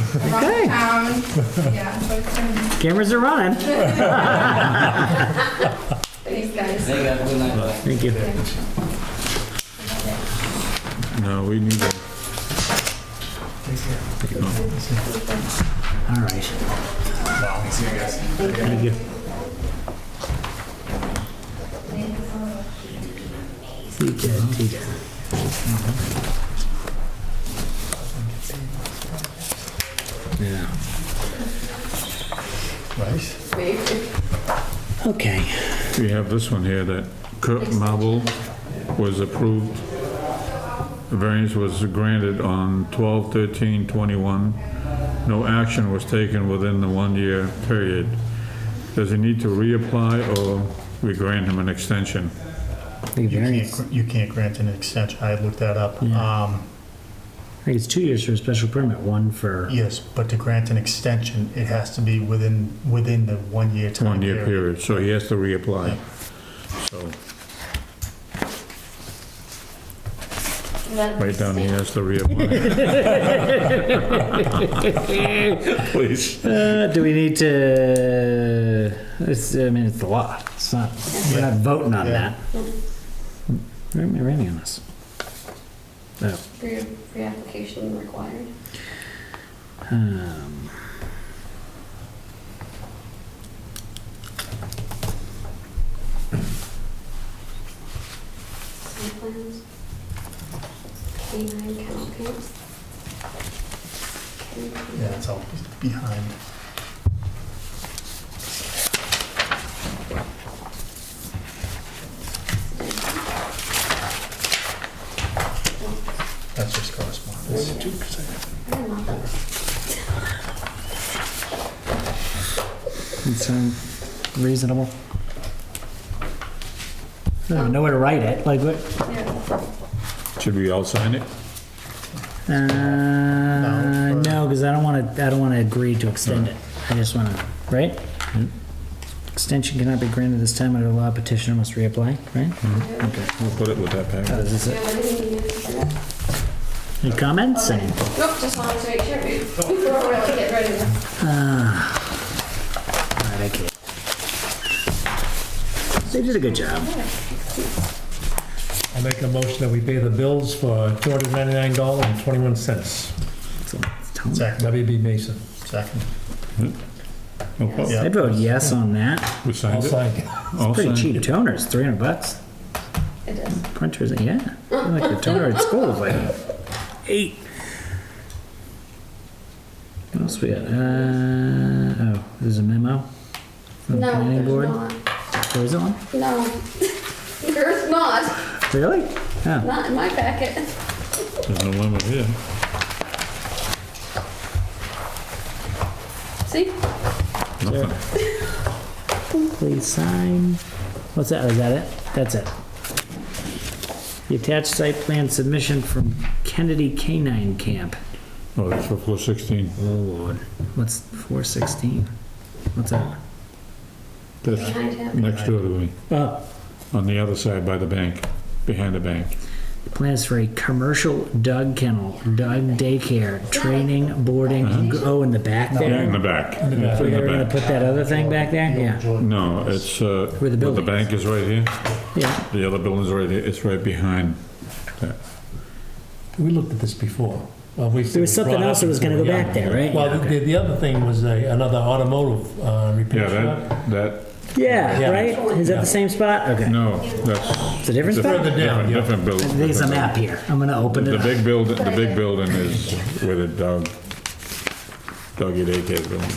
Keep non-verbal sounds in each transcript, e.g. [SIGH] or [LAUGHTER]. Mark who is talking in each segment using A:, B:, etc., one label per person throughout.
A: around
B: Okay.
A: town. [LAUGHS] Yeah, so it's been,
B: Cameras are running.
A: thanks guys.
C: They got a good night.
B: Thank you.
D: No, we need to.
B: All right. Thank you. See, Ted, see. Yeah. Okay.
D: We have this one here that Kurt Marble was approved. The variance was granted on 12/13/21. No action was taken within the one-year period. Does he need to reapply or we grant him an extension?
B: The
E: You
B: variance, I
E: can't, you can't grant an extension, I looked that up.
B: Yeah.
E: Um,
B: think it's two years for a special permit, one for,
E: Yes, but to grant an extension, it has to be within, within the one-year time
D: One-year
E: period.
D: period, so he has to reapply. So, right down, he has to reapply. Please.
B: uh, do we need to, it's, I mean, it's the law. It's not, we're not voting on
E: Yeah.
B: that. Where am I reading on this? Oh.
F: Pre- Pre-application required.
B: Um,
F: Site plans. Canine kennel camps.
E: Yeah, it's all behind. That's just correspondence.
F: I didn't want that.
B: it sound uh, reasonable. I don't even know where to write it. Like what?
D: Should we all sign it?
B: Uh, no,
E: or-
B: because I don't want to. I don't want to agree to extend it. I just want to. Right. Extension cannot be granted this time under law. Petitioner must reapply. Right.
D: We'll put it with that package.
B: Oh, is this
F: Do you
B: it?
F: have anything you need for that?
B: Any comments?
F: Okay.
B: Any-
F: Nope, just wanted to make sure we- before we really get rid of this.
B: All right, I get it. They did a good job.
G: I'll make a motion that we pay the bills for $299.21.
B: So, it's tone-
E: Second,
G: WB Mason.
E: second.
D: No problem.
E: Yeah.
B: I'd vote yes on that.
D: We
G: I'll
D: signed it?
G: sign.
D: All
B: Pretty
D: signed it?
B: cheap toners, three hundred bucks.
F: It is.
B: Printers, yeah. I Like the toner at school was like eight. What else we got? Uh, oh, there's a memo from the
F: No,
B: planning
F: there's
B: board.
F: not.
B: Where is it on?
F: No. [LAUGHS] There's not,
B: Really? Oh,
F: not in my packet.
D: There's no limit here.
F: See?
D: Nothing.
B: please sign. What's that? Oh, Is that it? That's it. The attached site plan submission from Kennedy Canine Camp.
D: Oh, that's for floor 16.
B: Oh, Lord. What's four sixteen? What's that?
D: That's
F: Behind him.
D: next door to me,
B: Oh,
D: on the other side by the bank, behind the bank.
B: Plans for a commercial dog kennel, dog daycare, training, boarding. and go- Oh, in the back there.
D: Yeah, in the back. It's
B: We're
D: in
B: gonna
D: the back.
B: put that other thing back there. Yeah,
D: No, it's, uh,
B: Where the
D: well, the
B: building
D: bank is right here,
B: yeah.
D: the other building's right here, it's right behind that.
G: We looked at this before. There
B: There was something else that was gonna go back there, right?
G: Well,
B: Yeah,
G: the, the other thing was a- another automotive uh,
D: Yeah,
G: repair shop.
D: that, that,
B: Yeah,
G: Yeah.
B: right. Is that the same spot? Okay.
D: no, that's.
B: It's a different spot.
G: Further down,
D: different-
G: yeah.
D: Different building.
B: There's a map here. I'm gonna open
D: The
B: it. up.
D: big building, the big building is where the dog, doggy daycare building.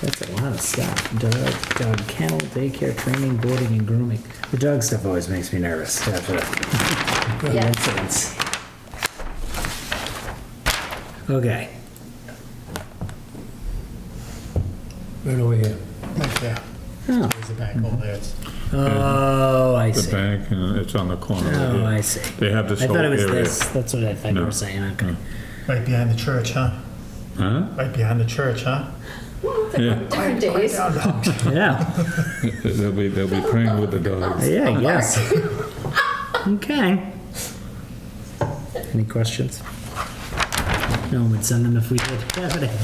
B: That's a lot of stuff. Dog, dog kennel, daycare, training, boarding, and grooming. The dog stuff always makes me [LAUGHS] nervous after the the
F: Yeah.
B: incidents. Okay.
G: Right over here.
E: Right there.
B: Oh.
E: There's the bank over there. It's-
B: Mm-hmm. Oh, I
D: The
B: see.
D: bank, and it's on the corner. right
B: Oh,
D: here.
B: I see.
D: They have this
B: I
D: whole
B: thought it
D: area.
B: was this. That's what I thought you
D: No.
B: were saying. Okay.
E: Right behind the church, huh?
D: Huh?
E: Right behind the church, huh?
D: Yeah.
F: Different days.
B: [LAUGHS] Yeah.
D: [LAUGHS] They'll be, they'll be praying with the dogs.
B: Yeah. [LAUGHS] Yes. okay. Any questions? No one would send them if we did [LAUGHS] evidence.